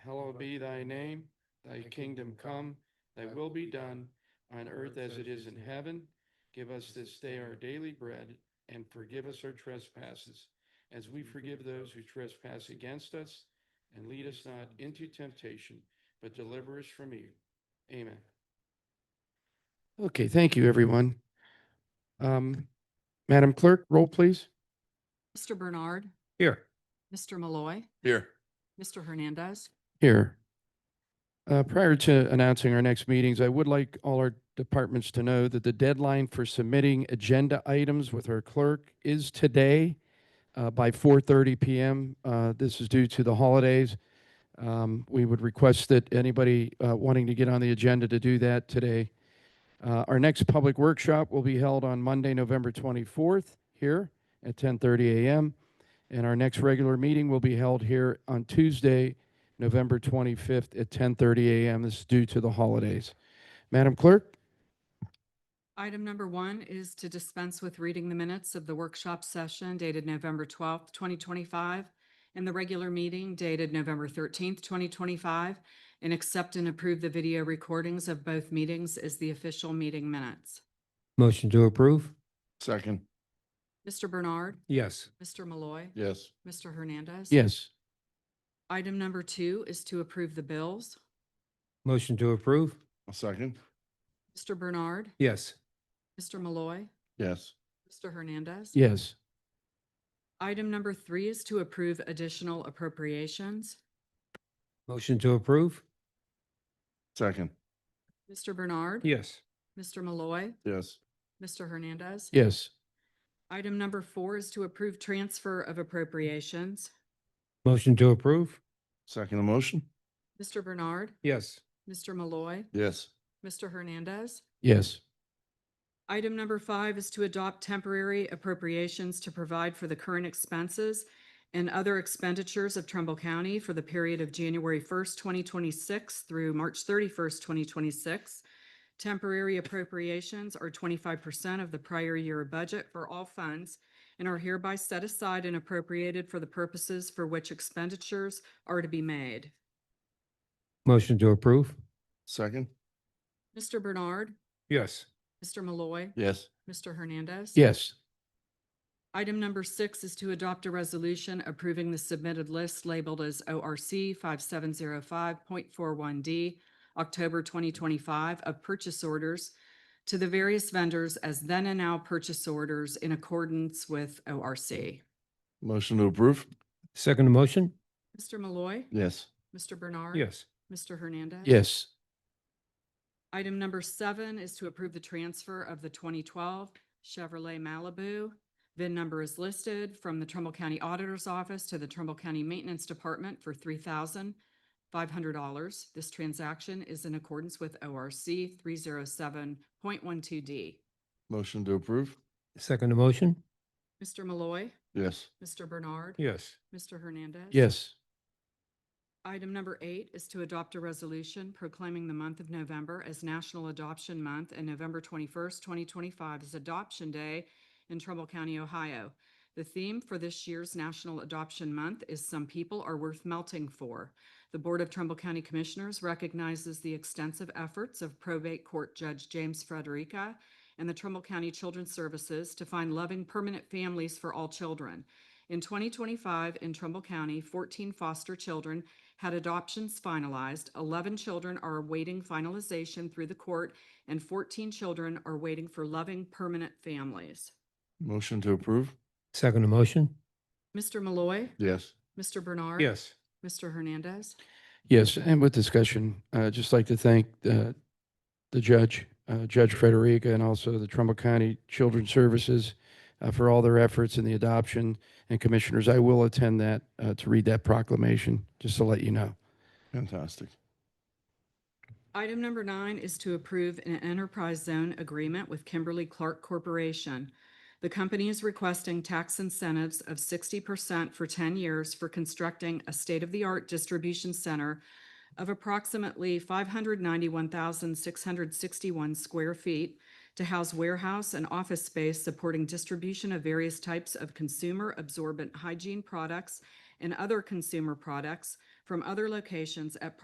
be thy name, thy kingdom come, thy will be done on earth as it is in heaven. Give us this day our daily bread and forgive us our trespasses as we forgive those who trespass against us. And lead us not into temptation, but deliver us from evil. Amen. Okay, thank you, everyone. Um, Madam Clerk, roll please. Mr. Bernard, Here. Mr. Malloy, Here. Mr. Hernandez, Here. Uh, Prior to announcing our next meetings, I would like all our departments to know that the deadline for submitting agenda items with our clerk is today uh, by 4:30 PM. Uh, This is due to the holidays. Um, We would request that anybody uh, wanting to get on the agenda to do that today. Uh, Our next public workshop will be held on Monday, November 24th, here at 10:30 a.m. And our next regular meeting will be held here on Tuesday, November 25th at 10:30 a.m. This is due to the holidays. Madam Clerk? Item number one is to dispense with reading the minutes of the workshop session dated November twelfth, twenty twenty-five, and the regular meeting dated November thirteenth, twenty twenty-five, and accept and approve the video recordings of both meetings as the official meeting minutes. Motion to approve? Second, Mr. Bernard, Yes. Mr. Malloy, yes. Mr. Hernandez. Yes. Item number two is to approve the bills. Motion to approve? A second, Mr. Bernard, Yes. Mr. Malloy, yes. Mr. Hernandez. Yes. Item number three is to approve additional appropriations. Motion to approve? Second, Mr. Bernard. Yes. Mr. Malloy. yes. Mr. Hernandez. Yes. Item number four is to approve transfer of appropriations. Motion to approve? Second the motion, Mr. Bernard. Yes. Mr. Malloy. yes. Mr. Hernandez. Yes. Item number five is to adopt temporary appropriations to provide for the current expenses and other expenditures of Trumbull County for the period of January first, twenty twenty-six through March thirty-first, twenty twenty-six. Temporary appropriations are twenty-five percent of the prior year budget for all funds and are hereby set aside and appropriated for the purposes for which expenditures are to be made. Motion to approve? Second, Mr. Bernard, Yes. Mr. Malloy, yes. Mr. Hernandez. Yes. Item number six is to adopt a resolution approving the submitted list labeled as ORC 5705.41D, October 2025, of purchase orders to the various vendors as then and now purchase orders in accordance with ORC. Motion to approve, Second motion? Mr. Malloy. yes. Mr. Bernard. Yes. Mr. Hernandez. Yes. Item number seven is to approve the transfer of the 2012 Chevrolet Malibu. VIN number is listed from the Trumbull County Auditor's Office to the Trumbull County Maintenance Department for $3,500. This transaction is in accordance with ORC 307.12D. Motion to approve, Second motion? Mr. Malloy, yes. Mr. Bernard, Yes. Mr. Hernandez. Yes. Item number eight is to adopt a resolution proclaiming the month of November as National Adoption Month and November 21st, 2025 is Adoption Day in Trumbull County, Ohio. The theme for this year's National Adoption Month is Some People Are Worth Melting For. The Board of Trumbull County Commissioners recognizes the extensive efforts of probate court Judge James Frederica and the Trumbull County Children's Services to find loving permanent families for all children. In 2025, in Trumbull County, 14 foster children had adoptions finalized, 11 children are awaiting finalization through the court, and 14 children are waiting for loving permanent families. Motion to approve, Second motion? Mr. Malloy, yes. Mr. Bernard. Yes. Mr. Hernandez. Yes. And with discussion, I'd just like to thank uh, the judge, uh, Judge Frederica, and also the Trumbull County Children's Services uh, for all their efforts in the adoption. And Commissioners, I will attend that uh, to read that proclamation, just to let you know. Fantastic. Item number nine is to approve an enterprise zone agreement with Kimberly Clark Corporation. The company is requesting tax incentives of sixty percent for ten years for constructing a state-of-the-art distribution center of approximately five hundred ninety-one thousand six hundred sixty-one square feet to house warehouse and office space supporting distribution of various types of consumer absorbent hygiene products and other consumer products from other locations at